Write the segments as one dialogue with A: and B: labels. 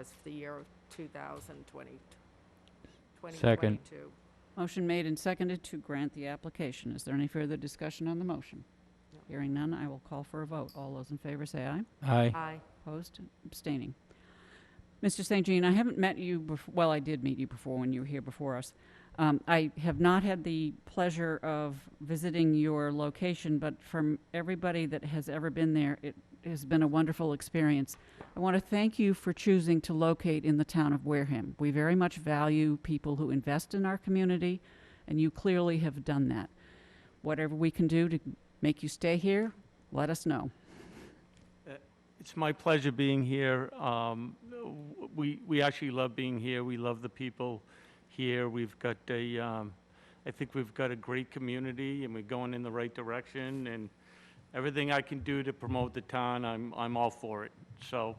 A: as for the year of 2020.
B: Second.
A: 2022.
C: Motion made and seconded to grant the application. Is there any further discussion on the motion?
A: No.
C: Hearing none, I will call for a vote. All those in favor say aye.
B: Aye.
A: Aye.
C: Opposed? Abstaining. Mr. St. Jean, I haven't met you before, well, I did meet you before when you were here before us. Um, I have not had the pleasure of visiting your location, but from everybody that has ever been there, it has been a wonderful experience. I want to thank you for choosing to locate in the town of Wareham. We very much value people who invest in our community, and you clearly have done that. Whatever we can do to make you stay here, let us know.
D: It's my pleasure being here. Um, w- We, we actually love being here. We love the people here. We've got a, um, I think we've got a great community and we're going in the right direction. And everything I can do to promote the town, I'm, I'm all for it. So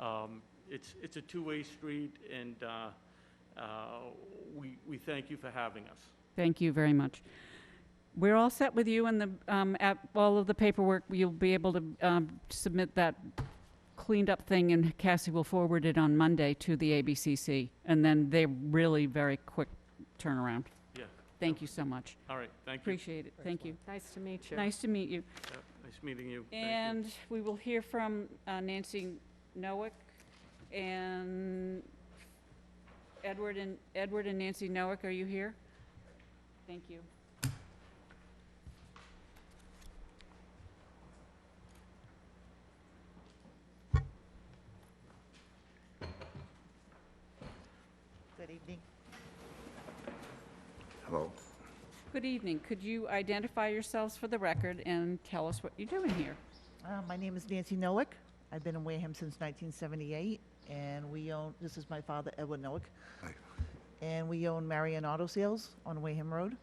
D: um, it's, it's a two-way street and uh, uh, we, we thank you for having us.
C: Thank you very much. We're all set with you and the, um, at all of the paperwork, you'll be able to, um, submit that cleaned up thing and Cassie will forward it on Monday to the ABCC. And then they're really very quick turnaround.
D: Yeah,
C: Thank you so much.
D: all right, thank you.
C: Appreciate it. Thank you.
A: Nice to meet you.
C: Nice to meet you.
D: Yeah, Nice meeting you. Thank you.
C: And we will hear from uh, Nancy Noack and Edward and, Edward and Nancy Noack, are you here? Thank you.
E: Good evening. Hello.
C: Good evening. Could you identify yourselves for the record and tell us what you're doing here?
E: Uh, My name is Nancy Noack. I've been in Wareham since 1978, and we own, this is my father, Edward Noack. And we own Marion Auto Sales on Wareham Road,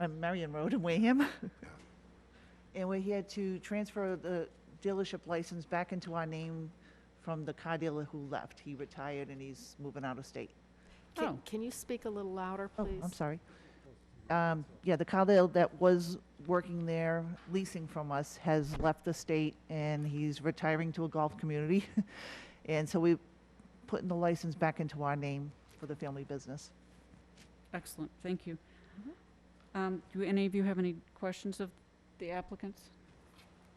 E: uh, Marion Road in Wareham. And we're here to transfer the dealership license back into our name from the car dealer who left. He retired and he's moving out of state.
A: Can-
C: Oh.
A: Can you speak a little louder,
E: Oh,
A: please?
E: I'm sorry. Um, Yeah, the Kyle that was working there leasing from us has left the state and he's retiring to a golf community. And so we're putting the license back into our name for the family business.
C: Excellent, thank you. Um, Do any of you have any questions of the applicants?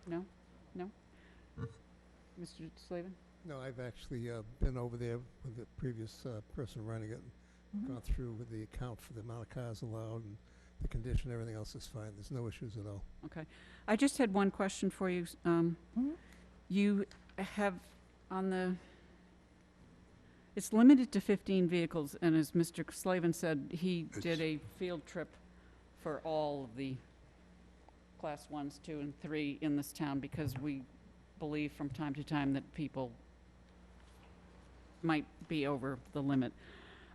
C: No? No? Mr. Slavin?
F: No, I've actually uh, been over there with the previous uh, person running it, and gone through with the account for the amount of cars allowed and the condition, everything else is fine. There's no issues at all.
C: I just had one question for you. um,
E: Mhm.
C: You have on the, it's limited to 15 vehicles, and as Mr. Slavin said, he did
F: It's-
C: a field trip for all of the Class 1s, 2, and 3 in this town, because we believe from time to time that people might be over the limit.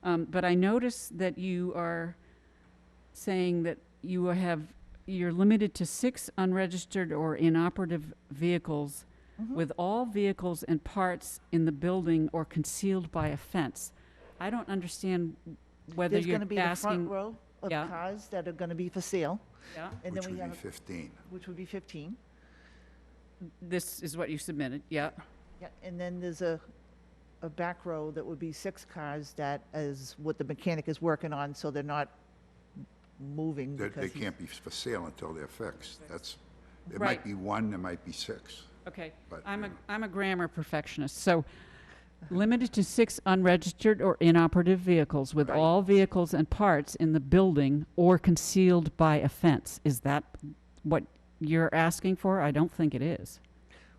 C: Um, But I noticed that you are saying that you have you're limited to six unregistered or inoperative vehicles
E: Mhm.
C: with all vehicles and parts in the building or concealed by a fence. I don't understand whether
E: There's
C: you're
E: going to be the front
C: asking.
E: row of
C: Yeah.
E: cars that are going to be for sale.
C: Yeah,
E: and
G: Which
E: then we
G: would
E: have,
G: be 15.
E: Which would be 15.
C: this is what you submitted. Yeah.
E: Yeah, and then there's a, a back row that would be six cars that is what the mechanic is working on, so they're not moving
G: They-
E: because
G: They
E: he's-
G: can't be for sale until they're fixed. That's, there
C: Right.
G: might be one, there might be six.
C: Okay.
G: But,
C: I'm a
G: you know.
C: I'm a grammar perfectionist, so. Limited to six unregistered or inoperative vehicles with
G: Right.
C: all vehicles and parts in the building or concealed by a fence. Is that what you're asking for? I don't think it is.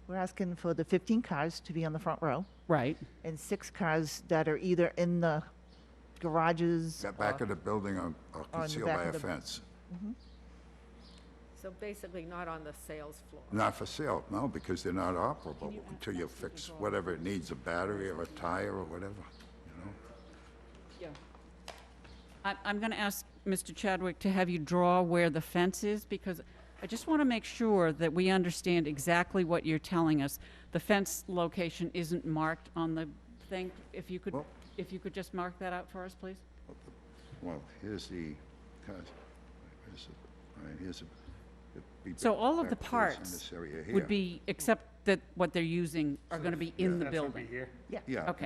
E: We're asking for the 15 cars to be on the front row
C: Right.
E: and six cars that are either in the garages.
G: The back of the building are are
E: the
G: concealed
E: back
G: by
E: of
G: a
E: the-
G: fence.
A: So basically not on the sales floor.
G: Not for sale, no, because they're not operable until you fix whatever it needs, a battery or a tire or whatever, you know?
C: Yeah. I, I'm going to ask Mr. Chadwick to have you draw where the fence is, because I just want to make sure that we understand exactly what you're telling us. The fence location isn't marked on the thing. If you could,
G: Well-
C: if you could just mark that out for us, please?
G: Well, here's the, cars- where's it? All right, here's a. it'd be
C: So
G: back-
C: all of
G: back
C: the
G: to this- in
C: parts
G: this area here.
C: would be, except that what they're using are going to be in the
B: That's gonna
C: building?
B: be here.
E: Yeah.
G: Yeah.
C: Okay.